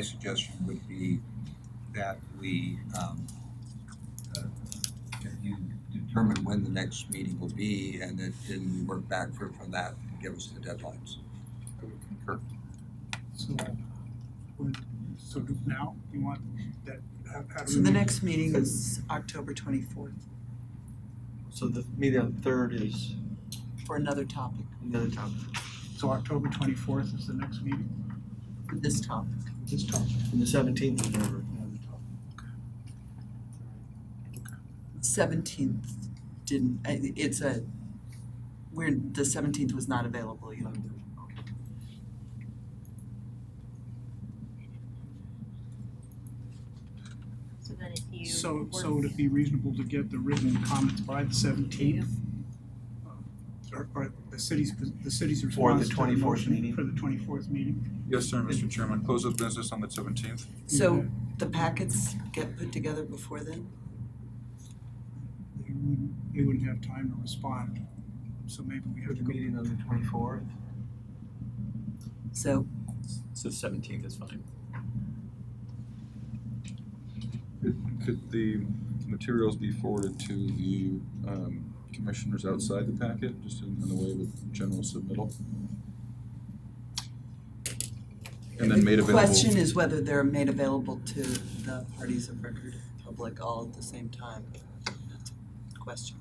My suggestion would be that we, um, uh, that you determine when the next meeting will be and that then we work back from, from that and give us the deadlines. I would Sure. So, would- so do now, you want that, how, how do we? So the make- next meeting is October twenty-fourth So the meeting on the third is for another topic, another topic. So October twenty-fourth is the next meeting? for this topic. This time. And the seventeenth is over. Seventeenth didn't, I- it's a, we're, the seventeenth was not available, you know. So then if you. So, were- so would it be reasonable to get the written comments by the seventeenth? Uh, Or, or the city's, the city's For the response to the 24th motion meeting? for the twenty-fourth meeting? Yes, sir, Mr. Chairman. Close of business on the seventeenth. So the packets get put together before then? They wouldn't, they wouldn't have time to respond, so maybe we For have the to go. meeting on the twenty-fourth. So So seventeenth is fine. Could the materials be forwarded to the um, commissioners outside the packet, just in in the way of a general submittal? And then made the available. question is whether they're made available to the parties of record, public, all at the same time. That's a Question.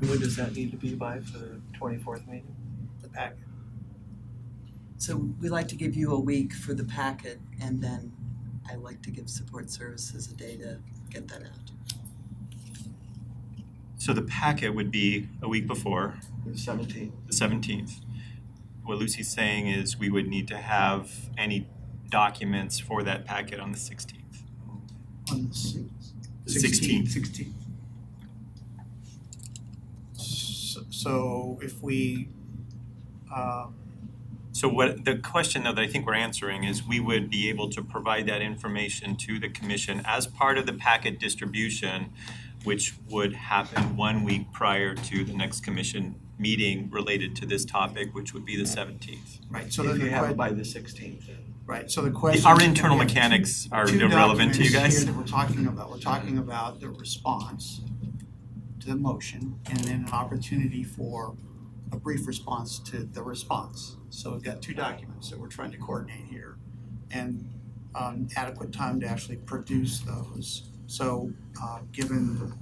And when does that need to be by for the twenty-fourth meeting? The packet. So we like to give you a week for the packet and then I like to give support services a day to get that out. So the packet would be a week before, The seventeenth. the seventeenth. What Lucy's saying is we would need to have any documents for that packet on the sixteenth. On the sixth. Sixteenth. Sixteenth. S- So if we, um, So what, the question though that I think we're answering is we would be able to provide that information to the commission as part of the packet distribution, which would happen one week prior to the next commission meeting related to this topic, which would be the seventeenth. right, so then If the you have it que- by the sixteenth. right, so the question. Our is, can internal we have two- mechanics are two irrelevant to you documents guys. here that we're talking about, we're talking about the response to the motion and then an opportunity for a brief response to the response. So we've got two documents that we're trying to coordinate here and um adequate time to actually produce those. So uh given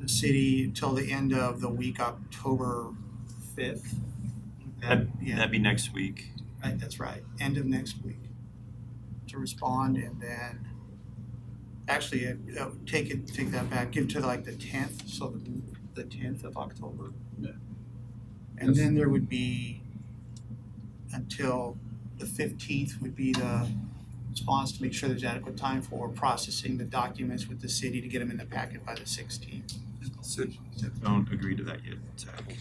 the city till the end of the week, October fifth. yeah. That'd be next week. Right, that's right, end of next week to respond and then, actually, uh, uh, take it, take that back, give to like the tenth, so the, the tenth of October. Yeah. And then there would be until the fifteenth would be the response to make sure there's adequate time for processing the documents with the city to get them in the packet by the sixteenth. Six- Don't agree to that yet, Zach, Okay,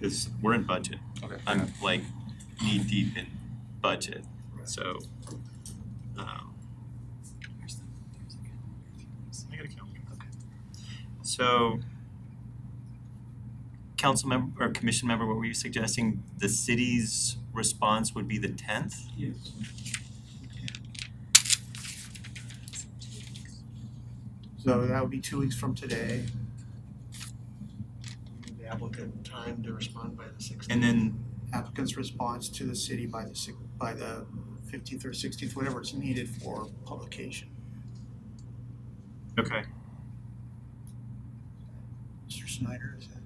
because we're in budget. okay. I'm like knee deep in budget, so. um, I gotta count. Okay. So, council member or commission member, what were you suggesting? The city's response would be the tenth? Yes. So that would be two weeks from today. The applicant time to respond by the sixteenth. And then, applicant's response to the city by the six, by the fifteenth or sixteenth, whatever is needed for publication. okay, Mr. Snyder, is that?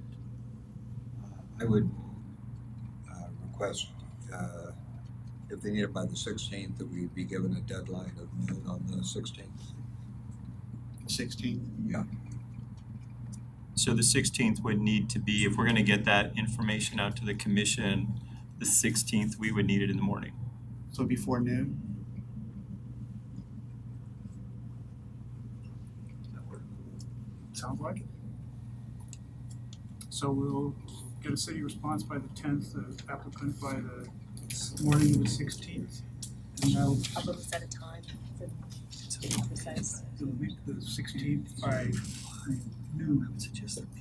I would uh, request, uh, if they need it by the sixteenth, that we be given a deadline of noon on the sixteenth. Sixteenth. so the sixteenth would need to be, if we're gonna get that information out to the commission, the sixteenth, we would need it in the morning. So before noon? Sounds like it. So we'll get a city response by the tenth, the applicant by the morning of the sixteenth. And that'll, How about set a time for the precise? it'll be the sixteenth by noon.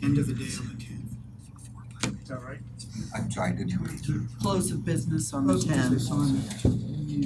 End of the day on the tenth. Is that right? I'm sorry, I didn't. Close of business on the Close of tenth. business on-